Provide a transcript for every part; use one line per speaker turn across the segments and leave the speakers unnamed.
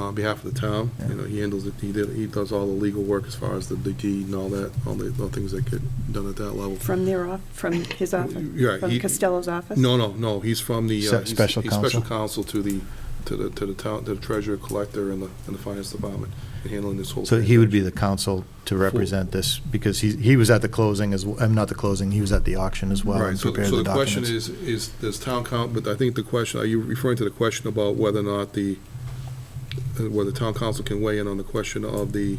on behalf of the town. You know, he handles it, he did, he does all the legal work as far as the the deed and all that, all the, all things that get done at that level.
From their off, from his office,
You're right,
from
he-
Costello's office?
No, no, no, he's from the. uh,
Se-
he's-
special
he's Special counsel
counsel.
to the, to the, to the town, the treasurer, collector, and the, and the finance department, in handling this whole.
So he would be the counsel to represent this, because he, he was at the closing as, well. I'm not the closing, he was at the auction as well
Right,
and
so,
prepared
so
the
the question
documents.
is, is, does town count, but I think the question, are you referring to the question about whether or not the, uh, whether town council can weigh in on the question of the,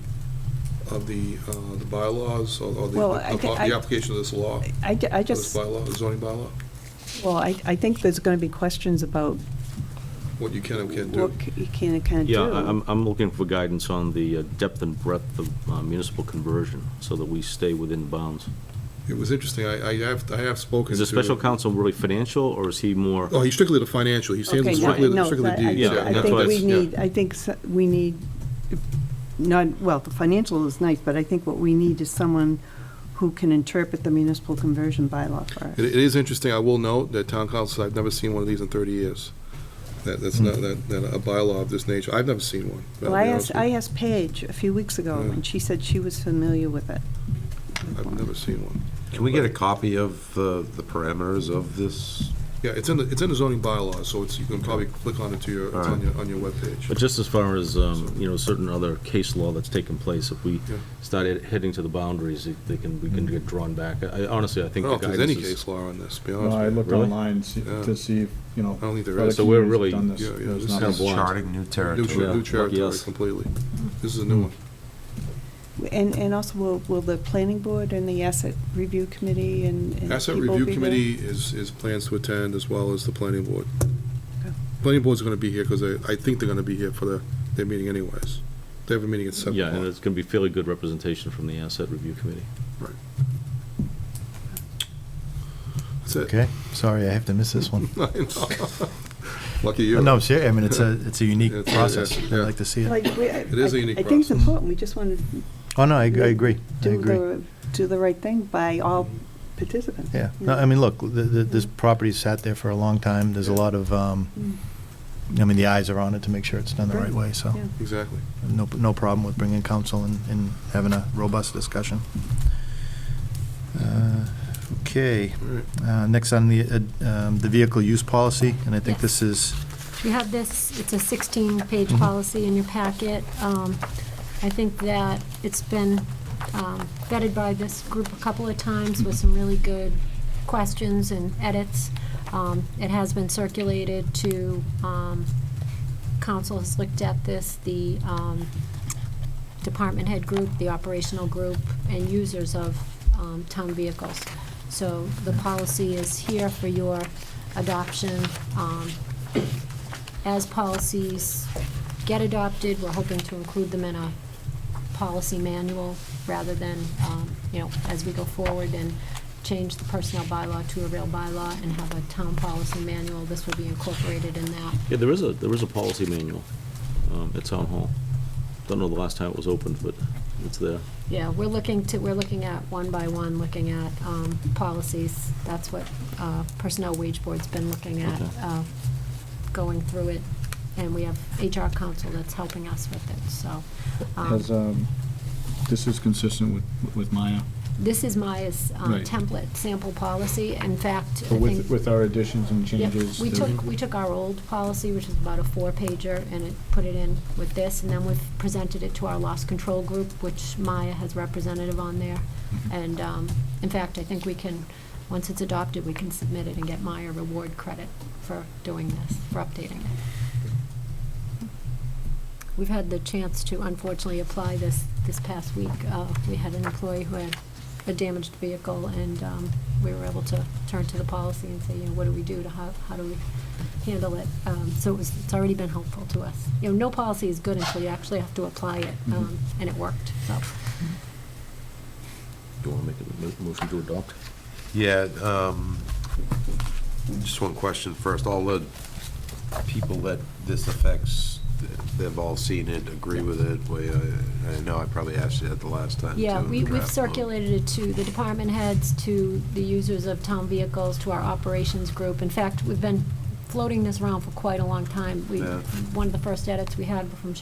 of the, uh, the bylaws, or or the,
Well, I
of
thi-
the
I-
application of this law, of
I, ju- I
this
just,
bylaw, the zoning bylaw,
well, I, I think there's going to be questions about
what you can and can't do?
what c- you can and can't do.
Yeah, I- I'm, I'm looking for guidance on the uh, depth and breadth of uh, municipal conversion, so that we stay within bounds.
It was interesting, I, I have, I have spoken
Is
to.
the special counsel really financial, or is he more,
Oh, he's strictly the financial, he's
Okay,
handling
no,
strictly, the-
no,
strictly the
but I-
deeds,
Yeah,
yeah.
I
that's
think
why
we
it's-
need, I think s- we need, not, well, the financial is nice, but I think what we need is someone who can interpret the municipal conversion bylaw for us.
It, it is interesting, I will note that town councils, I've never seen one of these in thirty years. That, that's not, that, that a bylaw of this nature, I've never seen one. I'll
Well, I
be honest
asked,
with
I
you.
asked Paige a few weeks ago,
Yeah.
and she said she was familiar with it.
I've never seen one.
Can we get a copy of the, the parameters of this?
Yeah, it's in the, it's in the zoning bylaws, so it's, you can probably click on it to your, it's on your, on your webpage.
but just as far as, um, you know, certain other case law that's taken place, if we
Yeah.
start he- heading to the boundaries, if they can, we can get drawn back. I I honestly, I
I
think
don't know
the
if there's any
guidance is.
case law on this, to be
No, I
honest with
looked
Really?
online see-
Yeah.
to see, if, you know.
I don't think there
other
is.
So we're
communities have
really-
done this.
yeah, yeah,
There's
this
not
is-
a-
blind.
Charting new
you. New,
territory.
ter- new
Yeah,
territory
yes.
completely. This is a new one.
And, and also, will, will the planning board and the asset review committee and and
Asset
people
Review
be there?
Committee is, is plans to attend, as well as the planning board.
Okay.
Planning board's gonna be here, because I, I think they're gonna be here for their, their meeting anyways. They have a meeting at seven
Yeah, and
o'clock.
it's going to be fairly good representation from the asset review committee.
That's it.
Okay, sorry, I have to miss this one.
I know. Lucky you.
No, I'm serious, I mean, it's a, it's a unique
It's a-
process,
yeah,
I'd
yeah.
like to see it.
Like, we- I-
It is a
I-
unique
I think it's
process.
important, we just want to
Oh, no, I, I agree, I
do
agree.
the, do the right thing by all participants.
Yeah, no, I mean, look, th th this property sat there for a long time, there's a lot of, um,
Mm.
I mean, the eyes are on it to make sure it's done the right
Right,
way, so,
yeah.
Exactly.
no, no problem with bringing counsel and, and having a robust discussion. Uh, Okay,
All right.
uh, next on the, uh, um, the vehicle use policy, and I think this is,
You have this, it's a 16-page
Mhm.
policy in your packet. Um, I think that it's been um, vetted by this group a couple of times with some really good questions and edits. Um, It has been circulated to, um, council has looked at this, the um, department head group, the operational group, and users of um, town vehicles. So the policy is here for your adoption. Um, As policies get adopted, we're hoping to include them in a policy manual rather than, um, you know, as we go forward and change the personnel bylaw to a real bylaw and have a town policy manual. This will be incorporated in that.
Yeah, there is a, there is a policy manual um, at Town Hall. Don't know the last time it was opened, but it's there.
Yeah, we're looking to, we're looking at one by one, looking at um, policies. That's what uh, Personnel Wage Board's been looking at,
Okay.
uh, going through it. And we have HR counsel that's helping us with it, so. um,
Has, um, this is consistent with, with Maya,
This is Maya's um,
Right.
template sample policy. In fact, I
but
think.
with, with our additions and
Yep,
changes.
We
the-
took, we took our old policy, which was about a four-pager, and it, put it in with this, and then we've presented it to our loss control group, which Maya has representative on there. And, um, in fact, I think we can, once it's adopted, we can submit it and get Maya reward credit for doing this, for updating it. We've had the chance to unfortunately apply this, this past week. Uh, we had an employee who had a damaged vehicle, and um, we were able to turn to the policy and say, you know, what do we do to, how, how do we handle it? Um, So it was, it's already been helpful to us. You know, no policy is good until you actually have to apply it, um, and it worked, so.
Do you want to make a mo- motion to adopt?
Yeah, um, just one question first. All the people that this affects, they've all seen it, agree with it. We, uh, I know I probably asked you that the last time,
Yeah,
too, in
we,
the
we've
draft.
circulated it to the department heads, to the users of town vehicles, to our operations group. In fact, we've been floating this around for quite a long time. We,
Yeah.
one of the first edits we had were from